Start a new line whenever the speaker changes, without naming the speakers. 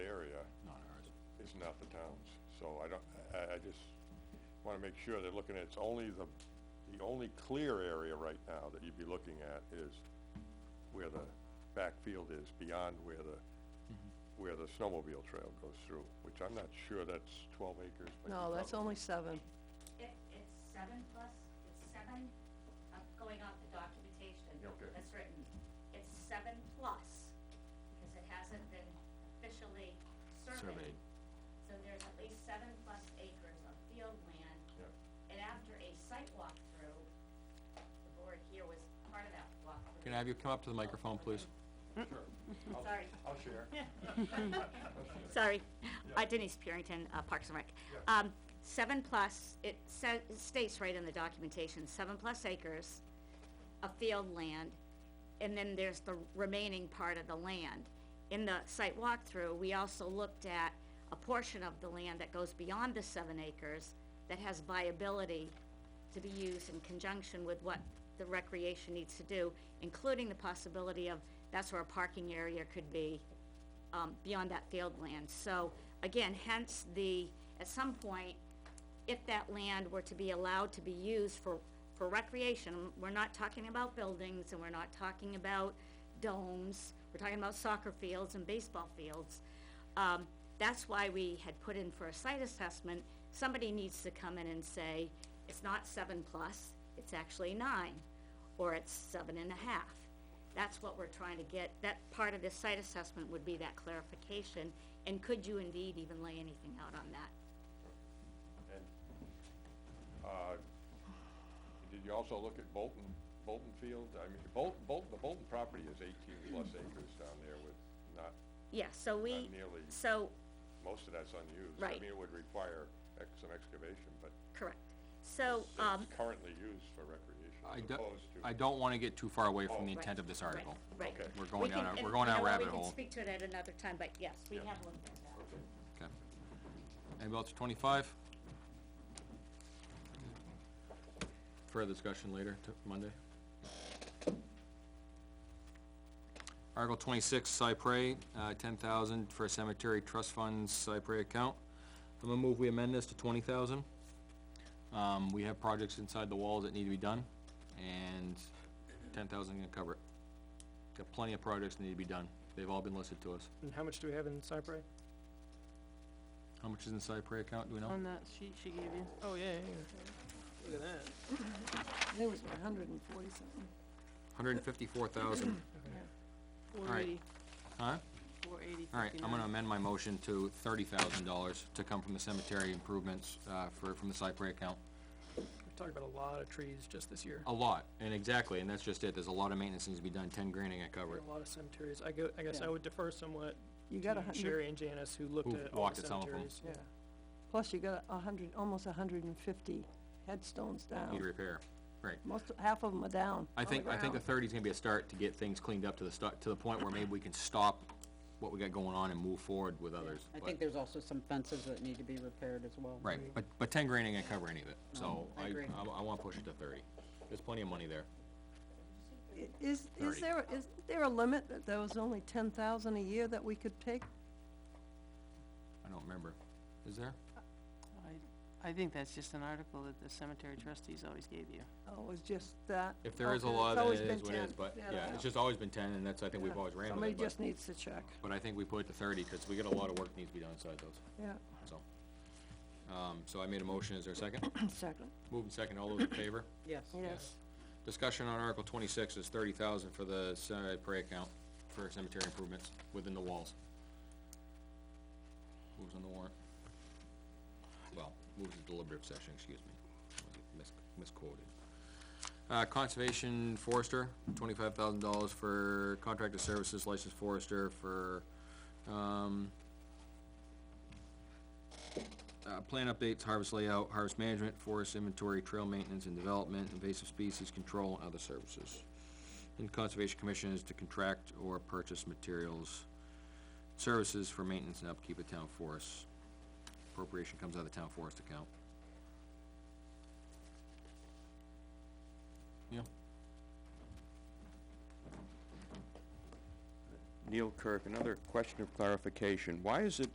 using out the towns, so I don't, I, I just wanna make sure they're looking at, it's only the, the only clear area right now that you'd be looking at is where the backfield is, beyond where the, where the snowmobile trail goes through, which I'm not sure that's twelve acres. but you
No, that's
probably-
only seven.
It, it's seven plus, it's seven, I'm going off the documentation
Yeah, okay.
that's written. It's seven plus, because it hasn't been officially surveyed.
Surveyed.
So there's at least seven plus acres of field land.
Yeah.
And after a site walkthrough, the board here was part of that walkthrough.
Can I have you come up to the microphone, please?
I'll-
Sorry.
I'll share.
Sorry, Uh, Denise Purington, uh, Parks and Rec. Um, Seven plus, it sa- it states right in the documentation, seven plus acres of field land, and then there's the remaining part of the land. In the site walkthrough, we also looked at a portion of the land that goes beyond the seven acres that has viability to be used in conjunction with what the recreation needs to do, including the possibility of, that's where a parking area could be, um, beyond that field land. So, again, hence the, at some point, if that land were to be allowed to be used for, for recreation, we're not talking about buildings and we're not talking about domes, we're talking about soccer fields and baseball fields. Um, that's why we had put in for a site assessment, somebody needs to come in and say, it's not seven plus, it's actually nine, or it's seven and a half. That's what we're trying to get, that part of this site assessment would be that clarification, and could you indeed even lay anything out on that?
And, uh, did you also look at Bolton, Bolton Field? I mean, Bolton, Bolton, the Bolton property is eighteen plus acres down there with not,
Yeah, so we,
not nearly,
so,
most of that's unused. I
Right.
mean, it would require ex- some excavation, but
correct, so, um,
it's currently used for recreation
I
as
don't,
opposed to.
I don't wanna get too far away from the
Right,
intent of this
Oh. right,
article.
right.
Okay.
We're going
We can-
down a-
and
we're going
you
down a
know what,
rabbit
We
hole.
can speak to it at another time, but yes, we
Yeah.
have looked at that.
Okay. Anybody else, twenty-five? Further discussion later, t- Monday. Article twenty-six, Cypre, uh, ten thousand for cemetery trust funds Cypre account. I'm gonna move we amend this to twenty thousand. Um, we have projects inside the walls that need to be done, and ten thousand gonna cover it. Got plenty of projects that need to be done, they've all been listed to us.
And how much do we have in Cypre?
How much is in Cypre account, do we know?
on that sheet she gave you.
Oh, yeah, yeah, yeah. Look at that.
It was a hundred and forty something.
Hundred and fifty-four thousand,
Four
Alright.
eighty,
huh?
four eighty
All right, I'm gonna amend my motion to thirty thousand dollars to come from the cemetery improvements, uh, for, from the Cypre account.
We've talked about a lot of trees just this year.
A lot, and exactly, and that's just it, there's a lot of maintenance needs to be done, ten grand ain't gonna cover it.
A lot of cemeteries. I go, I guess I
Yeah.
would defer somewhat
You got a
to
hundred,
Sherry and Janice, who looked
Who've
at all
walked
the
at some of 'em.
cemeteries.
yeah. Plus you got a hundred, almost a hundred and fifty headstones
Need
down.
repair, right.
Most, half of them are down.
Oh,
I think, I think the thirty's gonna be a start to get things cleaned up to the stu- to the point where maybe we can stop what we got going on and move forward with others.
I
but-
think there's also some fences that need to be repaired as well.
Right, but, but ten grand ain't gonna cover any of it, so
I
I,
agree.
I, I wanna push it to thirty. There's plenty of money there.
I- Is, is
30.
there, is there a limit that there was only ten thousand a year that we could take?
I don't remember. Is there?
I, I think that's just an article that the cemetery trustees always gave you.
Oh, it was just that?
If there is a
Okay, it's
law, then
always
it
been
is what it is,
10.
but,
I
yeah,
know.
it's just always been ten, and that's, I think we've always ran with
Somebody
it, but,
just needs to check,
but I think we put it to thirty, cause we got a lot of work needs to be done inside those,
yeah,
so. Um, so I made a motion, is there a second?
second,
Moved and second, all those in favor?
Yes.
yes.
Discussion on Article twenty-six is thirty thousand for the cemetery account for cemetery improvements within the walls. Moves on the warrant. Well, moves to deliberative session, excuse me, Mis- misquoted. Uh, conservation forester, twenty-five thousand dollars for contracted services licensed forester for, um, uh, plan updates, harvest layout, harvest management, forest inventory, trail maintenance and development, invasive species control, and other services. And Conservation Commission is to contract or purchase materials, services for maintenance and upkeep of town forests. Appropriation comes out of the town forest account. Yeah,
Neil Kirk, another question of clarification. Why is it